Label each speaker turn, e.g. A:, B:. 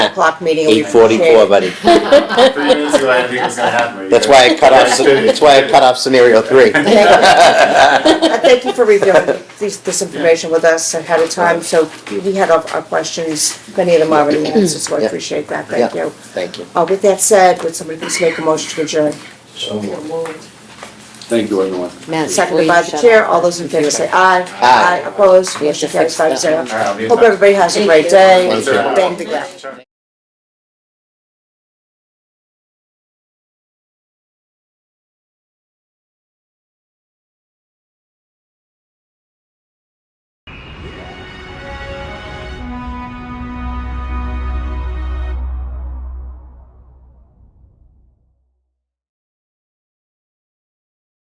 A: o'clock meeting. will be
B: Eight forty-four,
A: shared.
B: buddy.
C: Three
D: Thank
C: minutes ago, I think it was gonna happen.
B: That's why I cut off, that's why I cut off scenario three.
A: Uh, Thank you for reviewing these, this information with us ahead of time, so we had our, our questions, many of them already answered, so I
B: Yeah.
A: appreciate that, thank
B: Yeah.
A: you.
B: Thank you.
A: Uh, with that said, would somebody please make a motion to adjourn?
D: you, everyone.
E: Matt,
A: Seconded by the chair, all those in favor say aye.
B: Aye.
A: Opposed,
E: We have to
A: motion carries
E: fix that
A: five zero.
C: All right, I'll be in
A: Hope
C: touch.
A: everybody has a great day.
E: Thank
C: Thank you.
A: Bang together.
C: Sure.